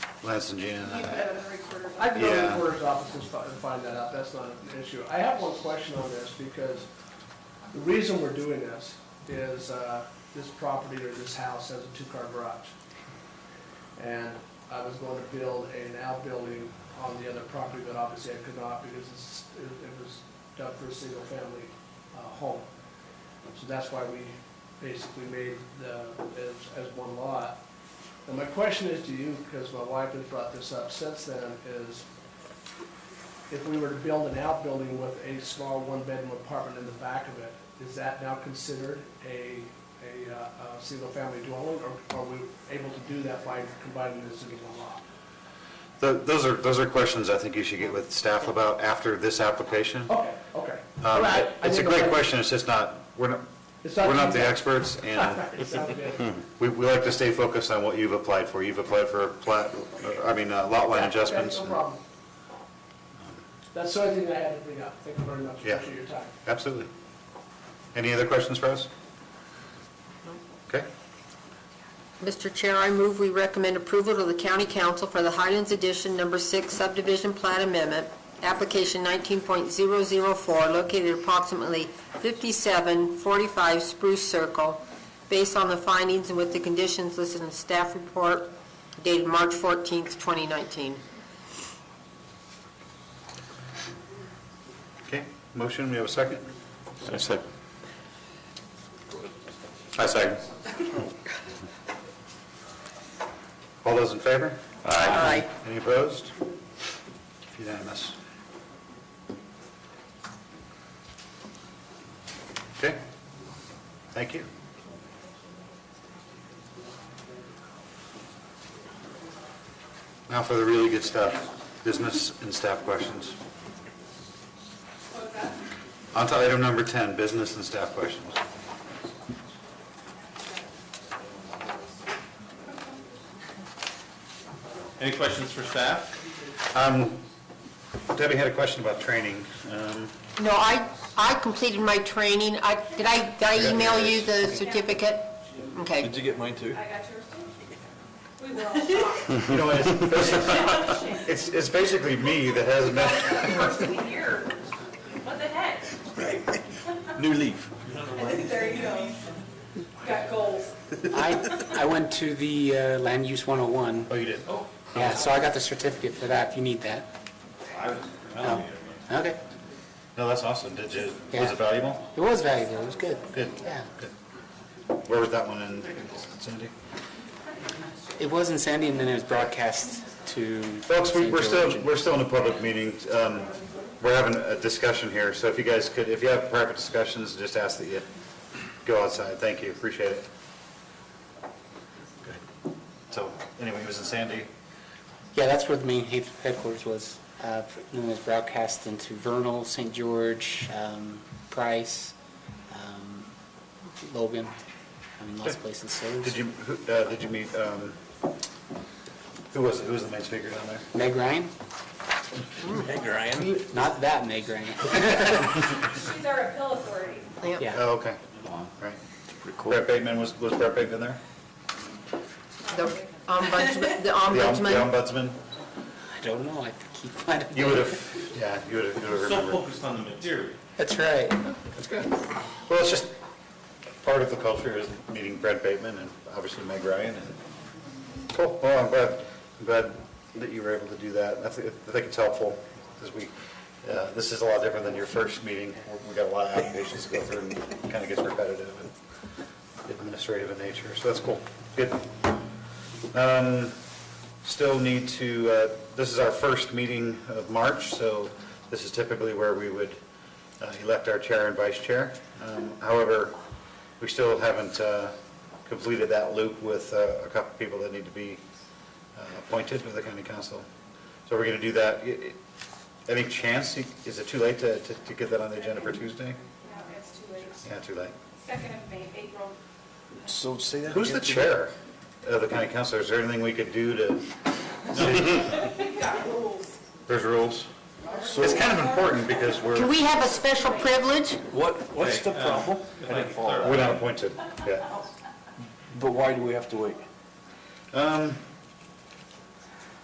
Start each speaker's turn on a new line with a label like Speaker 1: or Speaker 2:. Speaker 1: Lance and Gina and
Speaker 2: You've
Speaker 1: I.
Speaker 2: been in the recorder's
Speaker 3: I can go to the
Speaker 1: Yeah.
Speaker 3: recorder's office and fi- and find that out, that's not an issue. I have one question on this, because the reason we're doing this is, uh, this property or this house has a two-car garage. And I was going to build an outbuilding on the other property, but obviously I could not, because it's, it it was done for a single-family, uh, home. So that's why we basically made the, as, as one lot. And my question is to you, because my wife has brought this up since then, is if we were to build an outbuilding with a small one-bedroom apartment in the back of it, is that now considered a, a, uh, a single-family dwelling? Or are we able to do that by combining this into one lot?
Speaker 1: Th- Those are, those are questions I think you should get with staff about after this application.
Speaker 3: Okay, okay. Oh, All
Speaker 1: Um,
Speaker 3: right, I
Speaker 1: It's a
Speaker 3: didn't know
Speaker 1: great
Speaker 3: that-
Speaker 1: question, it's just not, we're not,
Speaker 3: It's
Speaker 1: we're not the
Speaker 3: you.
Speaker 1: experts, and
Speaker 3: It sounds good.
Speaker 1: we, we like to stay focused on what you've applied for. You've applied for plat, I mean, uh, lot line
Speaker 3: Yeah, okay,
Speaker 1: adjustments.
Speaker 3: No problem. That's the only thing I had to bring up. Thank you very much.
Speaker 1: Yeah.
Speaker 3: Appreciate your time.
Speaker 1: Absolutely. Any other questions for us? Okay,
Speaker 4: Mr. Chair, I move we recommend approval to the county council for the Highlands Edition Number Six subdivision plat amendment, application 19.004, located approximately 5745 Spruce Circle, based on the findings and with the conditions listed in staff report dated March 14th, 2019.
Speaker 1: okay. Motion, we have a second?
Speaker 5: I second.
Speaker 1: I second. All those in favor?
Speaker 4: Aye.
Speaker 1: Any opposed? Unanimous. Okay, thank you. Now for the really good stuff, business and staff questions. On to item number 10, business and staff questions.
Speaker 5: Any questions for staff?
Speaker 1: Um, Debbie had a question about training. Um,
Speaker 4: No, I, I completed my training. I, did I, did I email you the certificate? Okay.
Speaker 5: Did you get mine too?
Speaker 2: I got yours too. We were all shocked
Speaker 1: You know, it's- It's, it's basically me that hasn't been
Speaker 2: first we hear, what the heck?
Speaker 5: New leaf.
Speaker 2: And then there you go. Got goals.
Speaker 6: I, I went to the uh, Land Use 101.
Speaker 1: Oh, you did? Oh.
Speaker 6: Yeah, so I got the certificate for that, if you need that. Oh, Okay.
Speaker 1: No, that's awesome. Did you, was
Speaker 6: Yeah.
Speaker 1: it valuable?
Speaker 6: It was valuable, it was good.
Speaker 1: Good.
Speaker 6: Yeah.
Speaker 1: Good. Where was that one in Cindy?
Speaker 6: It was in Sandy, and then it was broadcast to...
Speaker 1: Folks, we-
Speaker 6: St.
Speaker 1: we're
Speaker 6: George
Speaker 1: still,
Speaker 6: and-
Speaker 1: we're still in a public meeting. Um, We're having a discussion here, so if you guys could, if you have private discussions, just ask that you go outside. Thank you, appreciate it. Good. So, anyway, it was in Sandy.
Speaker 6: Yeah, that's where the main head- headquarters was. Uh, And it was broadcast into Vernal, St. George, um, Price, um, Logan, I mean, lots of places. So it was-
Speaker 1: Did you, who- uh, did you meet, um, who was, it? who was the main speaker down there?
Speaker 6: Meg Ryan?
Speaker 5: Meg Ryan.
Speaker 6: Not that Meg Ryan.
Speaker 2: She's our appeal authority.
Speaker 4: Yeah.
Speaker 6: Yeah,
Speaker 1: Oh, okay. Right. Brett Bateman, was, was Brett Bateman there?
Speaker 4: The ombudsman, the
Speaker 1: The om-
Speaker 4: ombudsman.
Speaker 1: The ombudsman?
Speaker 6: I don't know, I keep finding...
Speaker 1: You would have, yeah, you would have, you would have
Speaker 5: So
Speaker 1: remembered.
Speaker 5: focused on the material.
Speaker 6: That's right.
Speaker 1: That's good. Well, it's just, part of the culture is meeting Brett Bateman and obviously Meg Ryan and. Cool, well, I'm glad, I'm glad that you were able to do that. I think, I think it's helpful because we, uh, this is a lot different than your first meeting. We- We got a lot of applications to go through and kind of gets repetitive and administrative in nature, so that's cool. Good. Um, still need to, uh, this is our first meeting of March, so this is typically where we would uh, elect our chair and vice chair. Um, However, we still haven't uh, completed that loop with uh, a couple people that need to be uh, appointed with the county council. So we're going to do that. I- i- Any chance, is it too late to to to get that on the agenda for Tuesday?
Speaker 2: Yeah, it's too late.
Speaker 1: Yeah, too late.
Speaker 2: Second of May, April.
Speaker 5: So say that.
Speaker 1: Who's the chair of the county council? Is there anything we could do to,
Speaker 2: We've got rules.
Speaker 1: there's rules? It's kind of important because
Speaker 4: Can
Speaker 1: we're,
Speaker 4: we have a special privilege?
Speaker 7: What, what's the
Speaker 5: uh,
Speaker 7: problem? I didn't follow
Speaker 1: we're
Speaker 7: that.
Speaker 1: not appointed, yeah.
Speaker 7: But why do we have to wait?
Speaker 1: Um,